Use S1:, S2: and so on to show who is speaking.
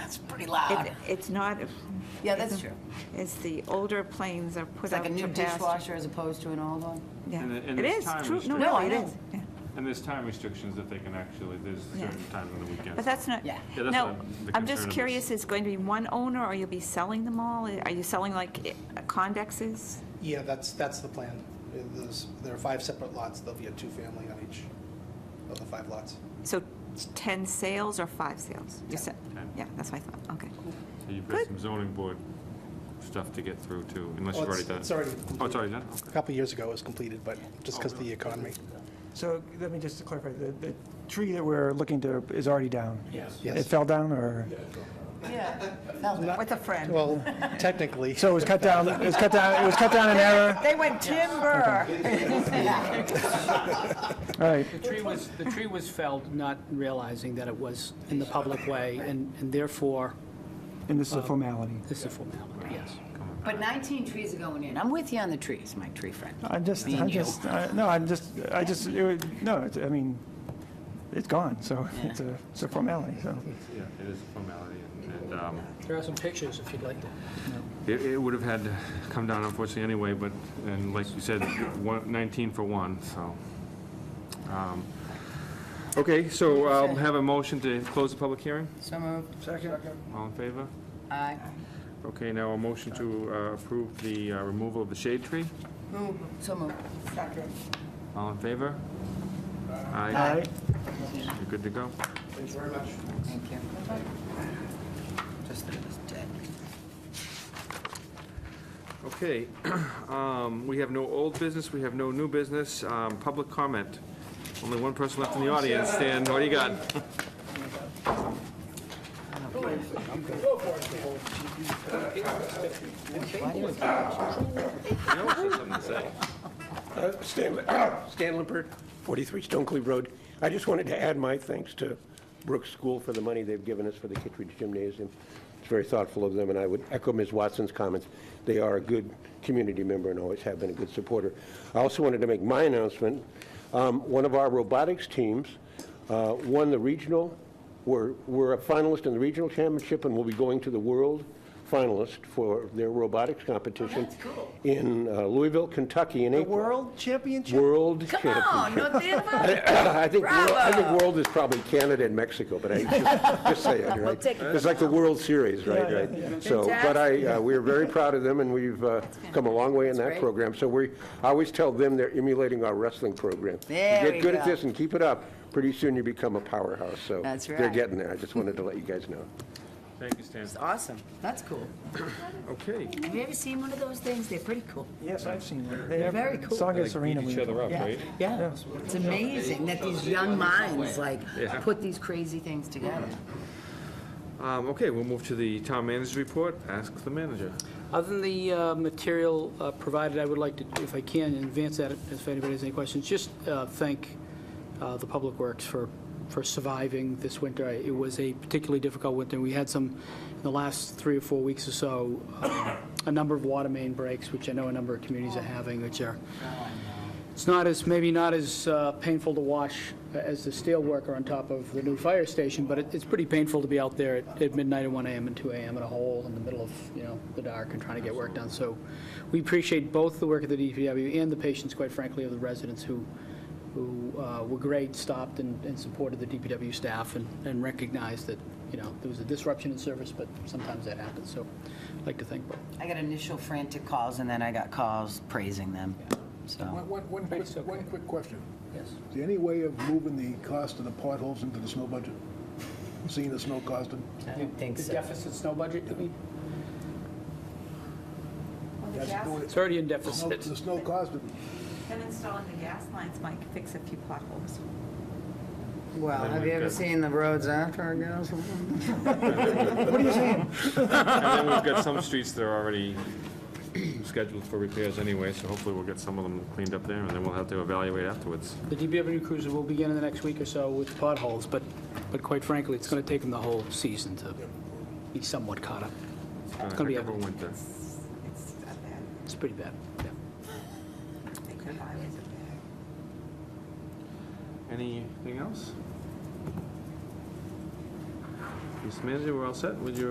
S1: That's pretty loud.
S2: Ah.
S3: It- It's not,
S2: Yeah, that's true.
S3: it's the older planes are
S2: It's
S3: put out
S2: like a
S3: to
S2: new
S3: pasture.
S2: dishwasher as opposed to an old one.
S3: Yeah,
S4: And the- and
S3: it
S4: there's
S3: is,
S4: time
S3: true, no,
S4: restriction.
S2: No,
S3: no,
S2: I
S3: it
S2: know.
S3: is, yeah.
S4: And there's time restrictions that they can actually, there's
S3: Yeah.
S4: certain times on the weekends.
S3: But that's not,
S2: Yeah.
S4: Yeah, that's
S3: no,
S4: what I'm- the
S3: I'm
S4: concern of
S3: just
S4: this.
S3: curious, is going to be one owner, or you'll be selling them all? Are you selling like eh, Condexes?
S5: Yeah, that's, that's the plan. It- there's- There are five separate lots, there'll be a two-family on each of the five lots.
S3: So 10 sales or five sales? You said,
S4: Ten.
S3: yeah, that's what I thought, okay.
S4: So you've got
S3: Good.
S4: some zoning board stuff to get through too, unless
S5: Well,
S4: you've already
S5: it's-
S4: done. it.
S5: it's already
S4: Oh, it's already done?
S5: A
S4: Okay.
S5: couple years ago it was completed, but just because of the economy.
S6: So let me just clarify, the, the tree that we're looking to is already down? It
S5: Yes.
S6: fell down or,
S2: Yeah.
S3: With a friend.
S5: Well, technically,
S6: so it was cut down, it was cut down, it was cut down in error?
S3: They went timber.
S6: All right,
S7: The tree was, the tree was felled not realizing that it was in the public way, and and therefore,
S6: and this is a formality.
S7: this is a formality, yes.
S2: But 19 trees are going in. I'm with you on the trees, my tree friend.
S6: I'm just,
S2: Me
S6: I'm
S2: and you.
S6: just, I- no, I'm just, I just, it would- no, it's- I mean, it's gone, so it's a, it's a formality, so.
S4: Yeah, it is a formality, and- and um,
S7: There are some pictures if you'd like to.
S4: it it would have had to come down unfortunately anyway, but, and like you said, one- 19 for one, so. um, Okay, so I'll have a motion to close the public hearing.
S2: So moved.
S4: All in favor?
S2: Aye.
S4: Okay, now a motion to uh, approve the uh, removal of the shade tree.
S2: Move. So moved. Second.
S4: All in favor?
S6: All
S4: Aye.
S6: right,
S4: You're good to go.
S5: thanks very much.
S2: Thank you. Just that it was dead.
S4: Okay, um, we have no old business, we have no new business, um, public comment. Only one person left in the audience, Stan, what do you got? I always have something to say.
S8: Uh, Stan Stan Lippert, 43 Stonecliff Road. I just wanted to add my thanks to Brooks School for the money they've given us for the Kittredge Gymnasium. It's very thoughtful of them, and I would echo Ms. Watson's comments. They are a good community member and always have been a good supporter. I also wanted to make my announcement. Um, One of our robotics teams uh, won the regional, were were a finalist in the regional championship and will be going to the world finalist for their robotics competition in uh, Louisville, Kentucky in April.
S6: world championship?
S8: World
S2: Come on,
S8: championship.
S2: North Danville.
S8: I think, world- I think
S2: Bravo.
S8: world is probably Canada and Mexico, but I just, just say it, right? It's like the World Series, right, right? So, but I, uh, we're very proud of them, and we've uh, come a long way in that
S2: great.
S8: program. So we, I always tell them they're emulating our wrestling program. You
S2: There we
S8: Get good at
S2: go.
S8: this and keep it up, pretty soon you become a powerhouse, so.
S2: That's
S8: They're
S2: right.
S8: getting there, I just wanted to let you guys know.
S4: Thank you, Stan.
S2: It's awesome. That's cool.
S4: Okay.
S2: Have you ever seen one of those things? They're pretty cool.
S6: Yes, I've seen that. They have-
S2: Very cool.
S6: Song of Serena.
S4: Each
S6: we-
S4: other up, right?
S2: Yeah. It's amazing that these young minds like put these crazy things together.
S4: Um, okay, we'll move to the town manager's report, ask the manager.
S7: Other than the uh, material uh, provided, I would like to, if I can, advance that, if anybody has any questions, just uh, thank uh, the Public Works for, for surviving this winter. I- It was a particularly difficult winter. We had some, in the last three or four weeks or so, um, a number of water main breaks, which I know a number of communities are having, which are, it's not as, maybe not as uh, painful to watch as the steel worker on top of the new fire station, but it- it's pretty painful to be out there at- at midnight at 1 AM and 2 AM in a hole in the middle of, you know, the dark and trying to get work done. So we appreciate both the work of the DPW and the patience, quite frankly, of the residents who, who uh, were great, stopped and and supported the DPW staff and and recognized that, you know, there was a disruption in service, but sometimes that happens. So I'd like to thank both.
S2: I got initial frantic calls and then I got calls praising them. So
S9: One, one, one quick, one quick question.
S7: Yes.
S9: Is there any way of moving the cost of the potholes into the snow budget? Seeing the snow costing?
S2: I don't think
S7: The
S2: so.
S7: deficit snow budget, I mean,
S9: It's
S7: it's already in deficit.
S9: The snow costing,
S3: Them installing the gas lines might fix a few potholes.
S2: Well, have you ever seen the roads after it goes?
S4: And then we've got some streets that are already scheduled for repairs anyway, so hopefully we'll get some of them cleaned up there, and then we'll have to evaluate afterwards.
S7: The DPW cruiser will begin in the next week or so with potholes, but, but quite frankly, it's going to take them the whole season to be somewhat caught up. It's
S4: Uh,
S7: going to
S4: heck of a
S7: be, a-
S4: winter.
S3: It's not bad.
S7: it's pretty bad, yeah.
S3: They could buy it.
S4: Anything else? Do Mr. Manager, we're all set with your